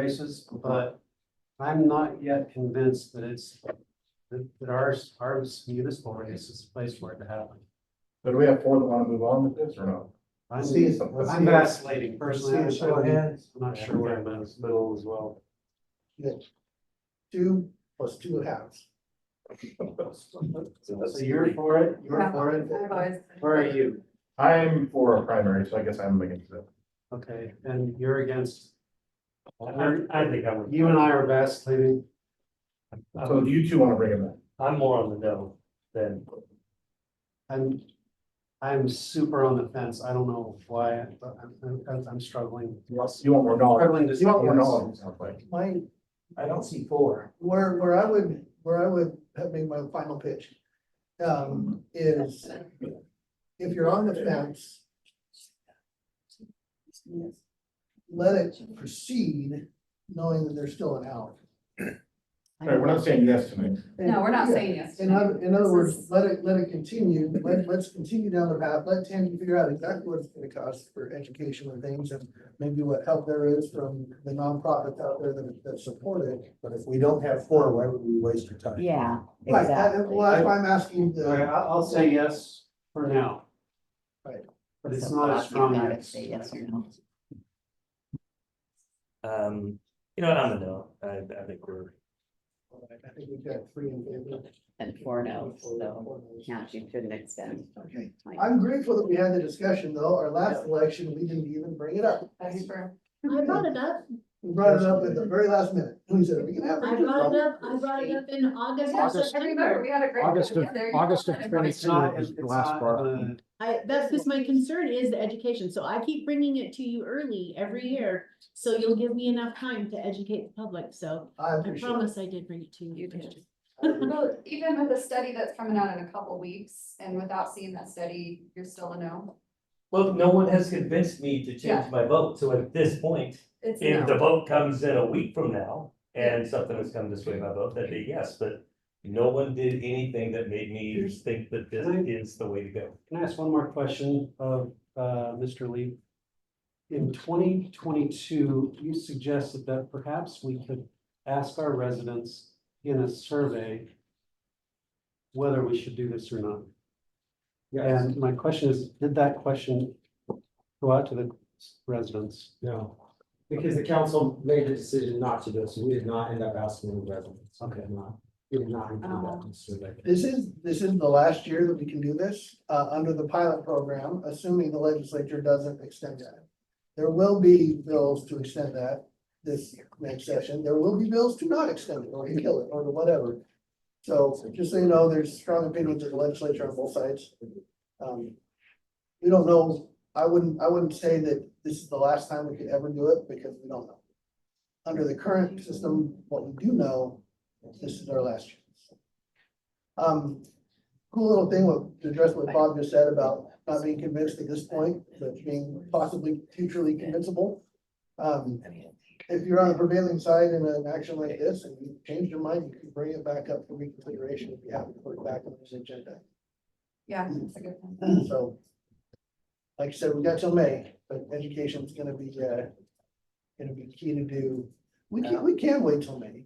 races, but I'm not yet convinced that it's, that, that our, our municipal race is the place for it to happen. So do we have four that wanna move on with this or no? I'm, Let's see some- let's I'm see- vacillating personally. let's see a show of I'm- hands. I'm not sure where I'm at. middle as well. Two plus two halves. So you're for it, you're for it, I've always- where are you? I'm for a primary, so I guess I'm against it. Okay, and you're against, I, I think I would. you and I are vacillating. So I'm- do you two wanna bring him I'm more on the no than, I'm, I'm super on the fence. I don't know why, but I'm- I'm, I'm struggling. in? You want more knowledge? Struggling to. You want more yes. knowledge, it sounds like. My, I don't see four. where, where I would, where I would have made my final pitch. Um, is if you're on the fence, let it proceed, knowing that there's still an out. All right, we're not saying yes tonight. No, we're not saying yes. In other, in This other words, is- let it, let it continue, let, let's continue down the path, let Tammy figure out exactly what it's gonna cost for education and things, and maybe what help there is from the nonprofits out there that, that support it. But if we don't have four, why would we waste your time? Yeah, Right, that- exactly. well, that's why I'm asking All right, the, I'll, I'll say yes for now. Right. But it's So not a Bob, strong You've got to yes. say yes or no. um, you know, I don't know, I, I think we're, I think we've got three in favor. And four no's, so count you to the next step. Okay, I'm grateful that we had the discussion, though, our last election, we didn't even bring it up. That's true. I brought it up, We brought it up at the very last minute, we said, are we gonna have? I brought it up, I brought it up in August or August. Remember, September. we had a great. August of- August of It's not, 22 it's is the last not, bar. uh, I, that's just my concern is the education, so I keep bringing it to you early every year. So you'll give me enough time to educate the public, so I I appreciate it. promise I did bring it to you. You did. I appreciate it. Well, even with a study that's coming out in a couple weeks and without seeing that study, you're still a no. well, no one has convinced me to Yeah. change my vote, so at this point, It's a if no. the vote comes in a week from now and something has come to sway my vote, that'd be yes, but no one did anything that made Hmm. me think that this is the way to go. Can I ask one more question of uh, Mr. Lee? In twenty twenty-two, you suggested that perhaps we could ask our residents in a survey whether we should do this or not. Yes, And my question is, did that question go out to the residents? no, because the council made the decision not to do it, so we did not end up asking the residents. Okay. Did not- We did not include that in the survey. This is, this is the last year that we can do this, uh, under the pilot program, assuming the legislature doesn't extend that. There will be bills to extend that this next session. There will be bills to not extend it or to kill it or to whatever. So just so you know, there's strong opinions of the legislature on both sides. Um, we don't know, I wouldn't, I wouldn't say that this is the last time we could ever do it because we don't know. Under the current system, what we do know, this is our last chance. Um, cool little thing with, to address what Bob just said about not being convinced at this point, but being possibly futurely convincible. Um, if you're on the prevailing side in an action like this and you change your mind, you can bring it back up for reconsideration if you have to put it back on this agenda. Yeah, it's a good thing. So. Like I said, we got till May, but education's gonna be, uh, gonna be key to do. We can, we can wait till May.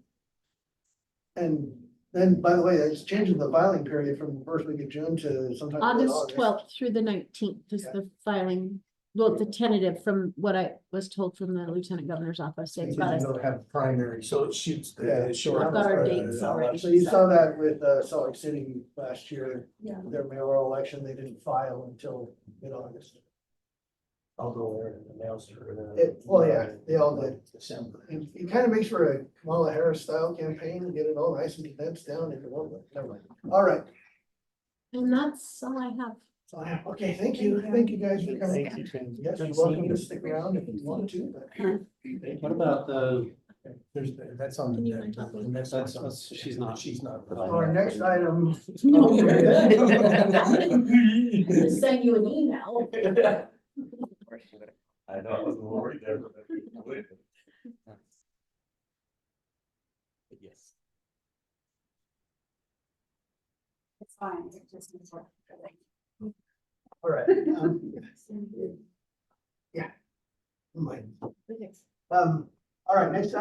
And then, by the way, that's changing the filing period from the first week of June to sometime. in August twelfth through the nineteenth is Yeah. the filing, well, the tentative from what I was told from the lieutenant governor's office. They've got us- don't have primary, so it shoots Yeah. the short. I've got our dates already. So uh, you saw that with, uh, Salt Lake City last year, Yeah. their mayoral election, they didn't file until mid-August. I'll go there and announce it. or the- It- well, yeah, they all did. December. It, it kind of makes for a Kamala Harris style campaign, and get it all nice and condensed down into one, never mind. All right, And that's all I have. So, Okay, thank you. Thank you guys for coming. Yes, you're welcome to stick around if you want to, but. What about the, There's, that's on the. Can you mind agenda. talking? That's- that's, that's- that's- she's not. She's not. Our next item. I just sent you an email. I know, I was worried there. but- Yes. It's fine. It just needs work. All right. um, Yeah. Never mind. Um, all right, next